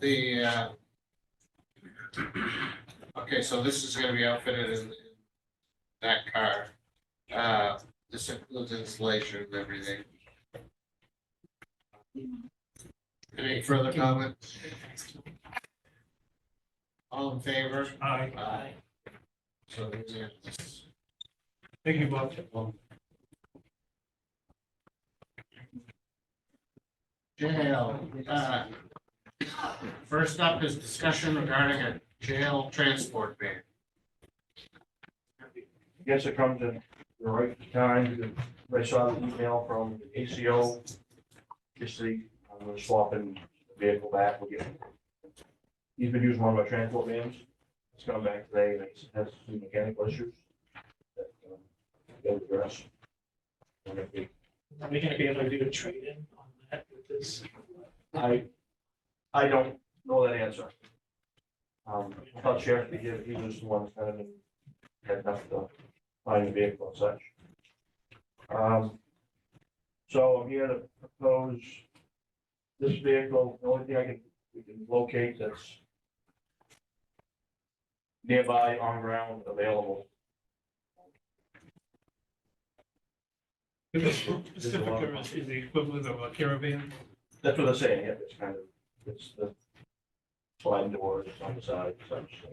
the, uh, okay, so this is gonna be outfitted in in that car. Uh, this includes installation and everything. Any further comments? All in favor? Aye. Aye. So, unanimous. Thank you, Bob. Jail, uh, first up is discussion regarding a jail transport ban. Guess it comes in the right time, because I saw the email from ACO. This week, I'm gonna swap in the vehicle back, we'll get. He's been using one of my transport vans, it's coming back today, and it has some mechanical issues. that, um, They'll address. And if we- Are we gonna be able to do a trade-in on that with this? I, I don't know that answer. Um, I thought Sheriff, he did- he was the one kind of had enough to find a vehicle and such. Um, so I'm here to propose this vehicle, the only thing I can, we can locate that's nearby, on ground, available. Pacifica is- is the equivalent of a caravan. That's what they're saying, yeah, it's kind of, it's the sliding doors it's on the side, such.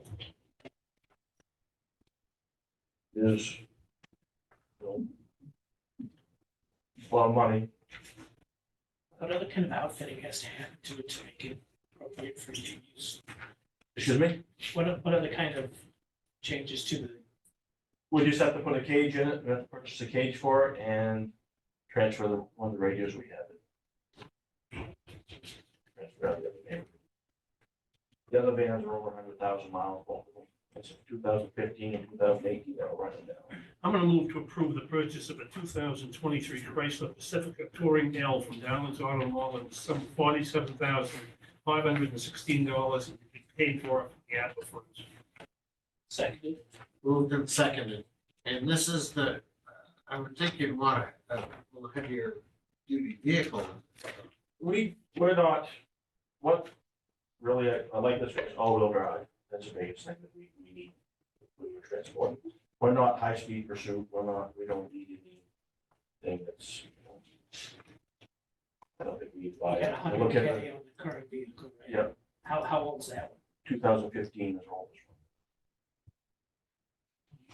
Is. A lot of money, What other kind of outfitting has to happen to it to make it appropriate for you to use? excuse me, What, o- what other kind of changes to the, we just have to put a cage in it, we have to purchase a cage for it and transfer the, one of the radios we have. Transfer out the other van. The other vans are over hundred thousand miles, both of them, it's two thousand fifteen and two thousand eighteen, they're running now. I'm gonna move to approve the purchase of a two thousand twenty-three Chrysler Pacifica Touring L from Dowland's Auto Mall in the sum of forty-seven thousand five hundred and sixteen dollars and be paid for it from the ARPA funds. seconded? Moved and seconded, and this is the, I would think you'd want to look at your duty vehicle. we, we're not, what, really, I, I like this, it's all-wheel drive, that's the biggest thing that we, we need. when we're transporting. we're not high-speed pursuit, we're not, we don't need anything that's. I don't think we We buy, got a it. hundred look at K the on the current vehicle, right? Yep. How, how old's that one? two thousand fifteen is all this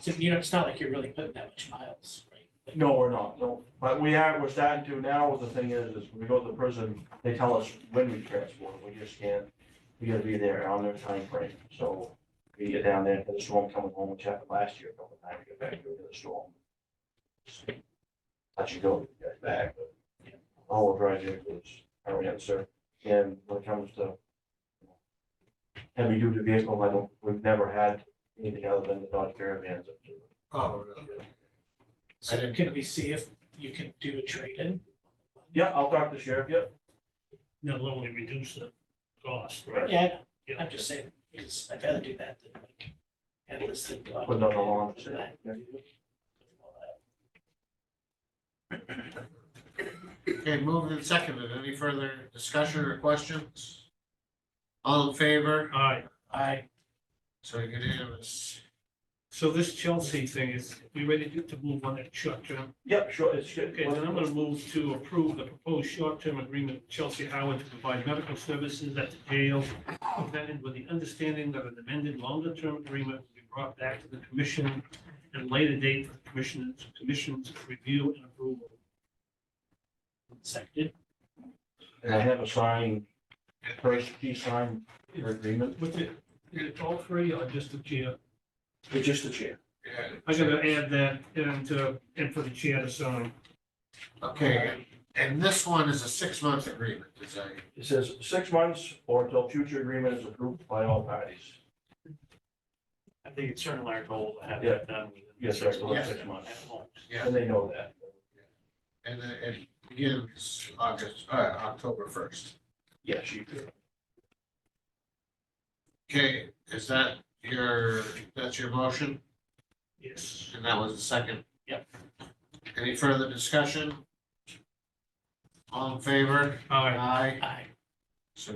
So, you know, it's not like you're really putting that much miles, right? one. No, we're not, no, but we are, we're starting to now, the thing is, is when we go to the prison, they tell us when we transport, we just can't, we gotta be there on their time frame. so. We get down there for the storm coming home, which happened last year, a couple times, get back to the storm. Let you go, get back, but all we're trying to do is hurry up, sir, and when it comes to. Heavy duty vehicle, I don't, we've never had anything other than the Dodge Caravans. up to- Oh, really? I So didn't- can we see if you can do a trade-in? Yeah, I'll talk to sheriff, yep, That'll only reduce the cost, right? Yeah, I know. I'm just saying, because I'd rather do that than like, have this thing go. out. Put it on the lawn. Yeah. Okay, moved and seconded, any further discussion or questions? All in favor, Aye, I, so unanimous. so this Chelsea thing is, we ready to- to move on that short-term yep, sure, it's. Okay, then I'm gonna move to approve the proposed short-term agreement with Chelsea Howard to provide medical services at the jail, amended with the understanding that an amended longer-term agreement will be brought back to the commission at a later date for the commission's, commission's review and approval. seconded, And I have a signed, first key signed your agreement. With it, is it all three or just the chair? It's just the chair. I'm gonna add that and, uh, and for the chair to sign. Okay, and this one is a six-month agreement, is that? It says six months or until future agreement is approved by all parties. I think it's certainly our goal to have Yeah. that done. within Yes, six sir, within months. six months. Yeah, And they know that. and then it begins August, uh, October first. Yes, you do. Okay, is that your, that's your motion? Yes. And that was the second? Yep. Any further discussion? All in favor? All right, Aye. I,